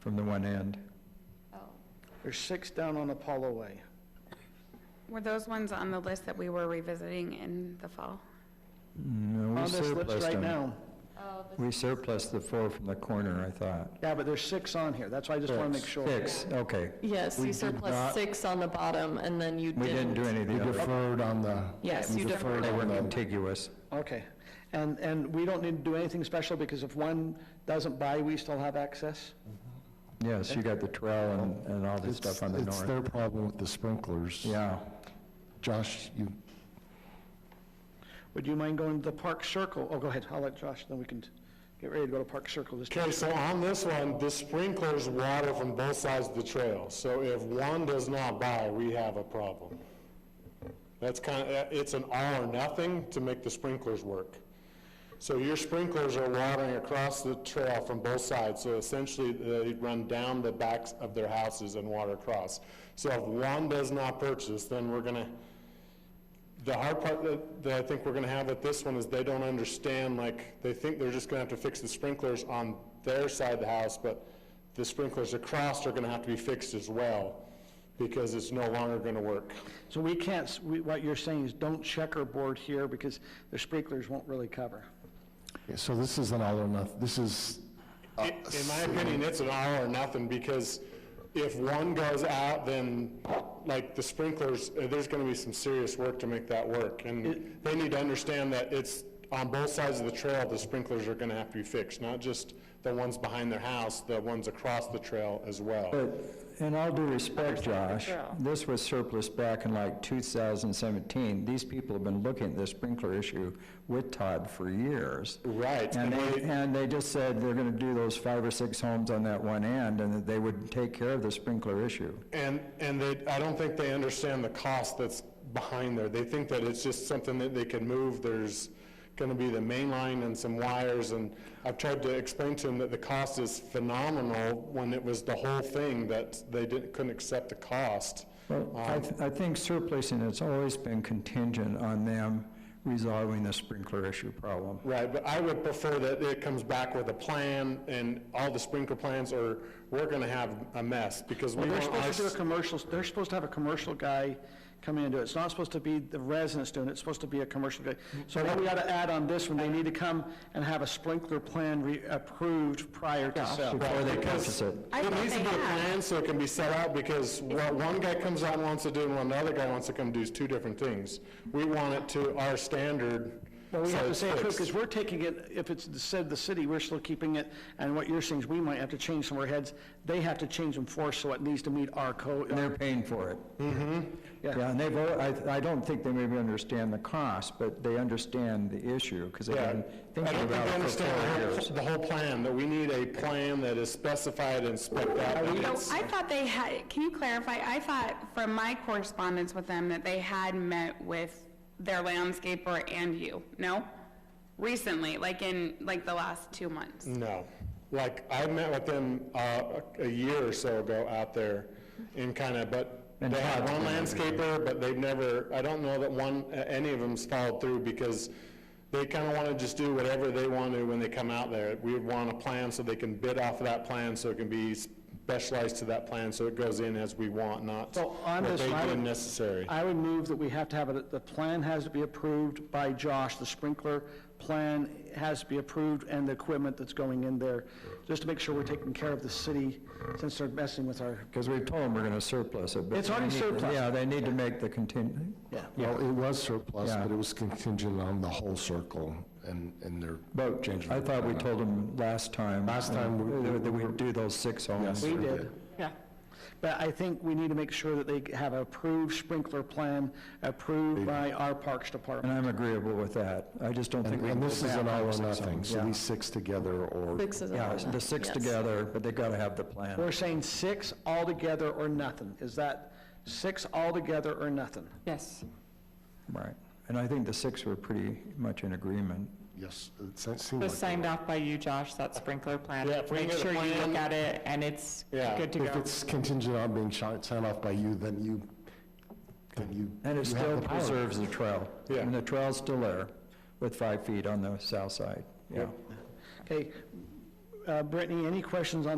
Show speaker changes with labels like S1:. S1: from the one end.
S2: Oh.
S3: There's six down on Apollo Way.
S2: Were those ones on the list that we were revisiting in the fall?
S1: No, we
S3: On this list
S1: surplus
S3: right
S1: them.
S3: now.
S2: Oh,
S1: We surplus the four from the corner, I thought.
S3: Yeah, but there's six on here. That's why I just want to make sure.
S1: Six, okay.
S4: Yes,
S1: We
S4: you
S1: did
S4: surplus
S1: not-
S4: six on the bottom, and then you
S1: We didn't
S4: didn't.
S1: do any of
S5: We
S1: the other.
S5: deferred on the,
S4: Yes,
S5: we
S4: you
S5: deferred
S4: deferred
S1: They
S5: on
S1: were
S5: the-
S1: contiguous.
S3: Okay. And, and we don't need to do anything special because if one doesn't buy, we still have access?
S1: Yes, you got the trail and, and all the
S5: It's-
S1: stuff on the
S5: It's their
S1: north.
S5: problem with the sprinklers.
S1: Yeah.
S5: Josh, you,
S3: Would you mind going to the Park Circle? Oh, go ahead. I'll let Josh, then we can get ready to go to Park Circle this
S6: Okay, so on this one, the sprinklers water from both sides of the trail, so if one does not buy, we have a problem. That's kind of, it's an all or nothing to make the sprinklers work. So your sprinklers are watering across the trail from both sides, so essentially they run down the backs of their houses and water across. So if one does not purchase, then we're gonna, the hard part that, that I think we're gonna have with this one is they don't understand, like, they think they're just gonna have to fix the sprinklers on their side of the house, but the sprinklers across are gonna have to be fixed as well, because it's no longer gonna work.
S3: So we can't, s- we- what you're saying is don't checkerboard here because the sprinklers won't really cover.
S5: so this is an all or nothing, this is, uh,
S6: In in my opinion, it's an all or nothing, because if one goes out, then, like, the sprinklers, uh, there's gonna be some serious work to make that work. And they need to understand that it's, on both sides of the trail, the sprinklers are gonna have to be fixed, not just the ones behind their house, the ones across the trail as well.
S1: But in all due respect, Josh,
S4: trail.
S1: this was surplus back in like 2017. These people have been looking at the sprinkler issue with Todd for years.
S6: Right,
S1: And
S6: and
S1: they,
S6: they,
S1: and they just said they're going to do those five or six homes on that one end, and that they would take care of the sprinkler issue.
S6: and, and they, I don't think they understand the cost that's behind there. They think that it's just something that they can move, there's gonna be the main line and some wires, and I've tried to explain to them that the cost is phenomenal when it was the whole thing, that they didn't, couldn't accept the cost.
S1: Well, I, th- I think surplusing has always been contingent on them resolving the sprinkler issue problem.
S6: Right, but I would prefer that it comes back with a plan and all the sprinkler plans, or we're gonna have a mess, because we
S3: They're
S6: want our
S3: supposed to do a commercial, they're supposed to have a commercial guy come in and do it. It's not supposed to be the residents doing it, it's supposed to be a commercial guy. So what we ought to add on this one, they need to come and have a sprinkler plan re- approved prior to sale.
S1: Before they
S6: because-
S1: purchase it.
S2: I
S6: It
S2: thought
S6: needs to
S2: they
S6: be a
S2: had.
S6: plan so it can be set out, because what one guy comes out and wants to do and what another guy wants to come do is two different things. We want it to our standard,
S3: Well, we
S6: so
S3: have to
S6: it's
S3: say it too, because
S6: fixed.
S3: we're taking it, if it's the- said the city, we're still keeping it, and what you're saying is we might have to change some of our heads. They have to change them for us, so it needs to meet our code.
S1: And they're paying for it.
S3: Yeah.
S1: Mm-hmm. Yeah, and they've, al- I, I don't think they maybe understand the cost, but they understand the issue, because they've
S6: Yeah, I
S1: been
S6: don't think
S1: thinking
S6: they
S1: about it for four
S6: understand the
S1: years.
S6: whole- the whole plan, that we need a plan that is specified and spec'd out. and
S2: No,
S6: it's-
S2: I thought they had, can you clarify? I thought from my correspondence with them that they had met with their landscaper and you, no? Recently, like in, like the last two months.
S6: No. Like, I met with them uh, a a year or so ago out there in kind of, but
S1: And
S6: they had
S1: Todd's
S6: one
S1: been there.
S6: landscaper, but they've never, I don't know that one, a- any of them's followed through because they kind of want to just do whatever they want to when they come out there. We want a plan so they can bid off of that plan, so it can be specialized to that plan, so it goes in as we want, not
S3: So on
S6: what
S3: this
S6: they
S3: slide-
S6: deem necessary.
S3: I would move that we have to have it, the plan has to be approved by Josh, the sprinkler plan has to be approved, and the equipment that's going in there, just to make sure we're taking care of the city, since they're messing with our,
S1: Because we told them we're going to surplus it. but
S3: It's
S1: they
S3: already
S1: need to-
S3: surplus.
S1: Yeah, they need to make the contingent,
S5: well, it was surplus,
S1: Yeah.
S5: but it was contingent on the whole circle and, and their.
S1: but
S5: Change
S1: I
S5: the
S1: thought we
S5: plan.
S1: told them last time.
S5: Last time we-
S1: uh, That we'd do those six homes.
S3: we
S5: Sure
S3: did.
S4: Yeah.
S3: But I think we need to make sure that they have approved sprinkler plan, approved by our Parks
S1: And
S3: Department.
S1: I'm agreeable with that. I just don't think
S5: And
S1: we can
S5: and
S1: go
S5: this is an
S1: back
S5: all
S1: on
S5: or
S1: six
S5: nothing,
S1: homes.
S5: so
S1: Yeah.
S5: these six together or.
S4: Six is an all
S1: Yeah,
S4: or
S1: the six together, but they've got to have the plan.
S3: We're saying six altogether or nothing. Is that six altogether or nothing?
S4: Yes.
S1: Right. And I think the six were pretty much in agreement.
S5: Yes, it se- seemed like.
S7: was signed off by you, Josh, that sprinkler plan.
S6: Yeah, if we
S7: Make
S6: get a
S7: sure you
S6: plan-
S7: look at it and it's
S6: Yeah.
S7: good to
S5: If
S7: go.
S5: it's contingent on being shi- signed off by you, then you, then you.
S1: And it
S5: you have
S1: still
S5: the power.
S1: preserves the trail.
S6: Yeah.
S1: And the trail's still there with five feet on the south side, yeah.
S3: Okay, uh, Brittany, any questions on